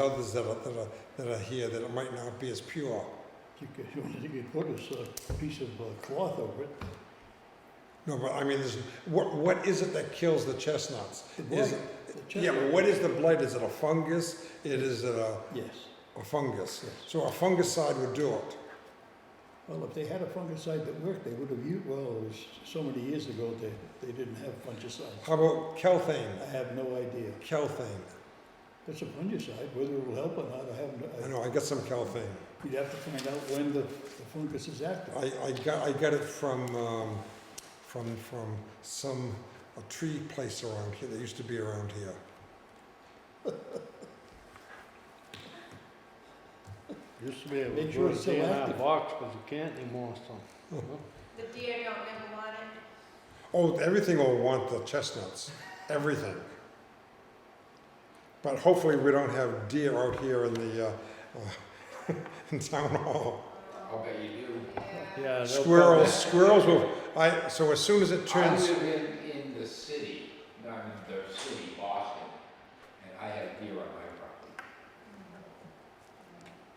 others that are, that are, that are here that it might not be as pure. You could, you know, you could put this uh, piece of uh, cloth over it. No, but I mean, there's, what, what is it that kills the chestnuts? The Is blight, it- the Yeah, chestnut. but what is the blight? Is it a fungus? It is it a, Yes. a fungus. Yes. So a fungicide would do it. Well, if they had a fungicide that worked, they would have used, well, it was so many years ago, they, they didn't have fungicides. How about I kelthane? have no idea. Kelthane. It's a fungicide, whether it'll help or not, I I haven't, know, I got some kelthane. I- you'd have to find out when the the fungus is active. I, I got, I got it from, um, from, from some, a tree place around here, that used to be around here. Used to be able Make to sure put it's it in still our active. box, but you can't anymore, so. The deer don't ever want it. Oh, everything will want the chestnuts, everything. But hopefully we don't have deer out here in the, uh, uh, in town hall. I'll bet you do. Yeah. Yeah. they'll Squirrels, squirrels will, I, so as soon as it I turns, live in, in the city, not in the city, Boston, and I have deer on my property.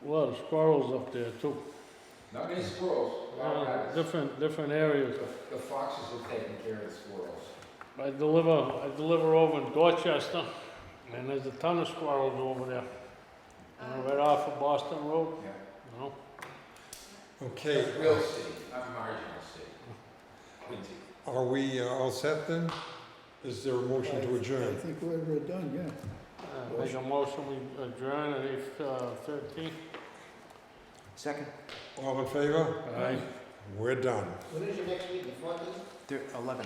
probably- A lot of squirrels up there too. Not many squirrels, a lot of Uh, rabbits. Different, different areas. The foxes have taken care of the squirrels. I deliver, I deliver over in Dorchester, and there's a ton of squirrels over there. You know, right off of Boston Road, Yeah. you know? okay, That's real city, not marginal city. Quincy. are we uh, all set then? Is there a motion to I- I adjourn? think we're uh, done, yeah. Uh, Make a motion, we adjourn at eight uh, thirteen. Second, All in favor? Aye. We're done. they're eleven.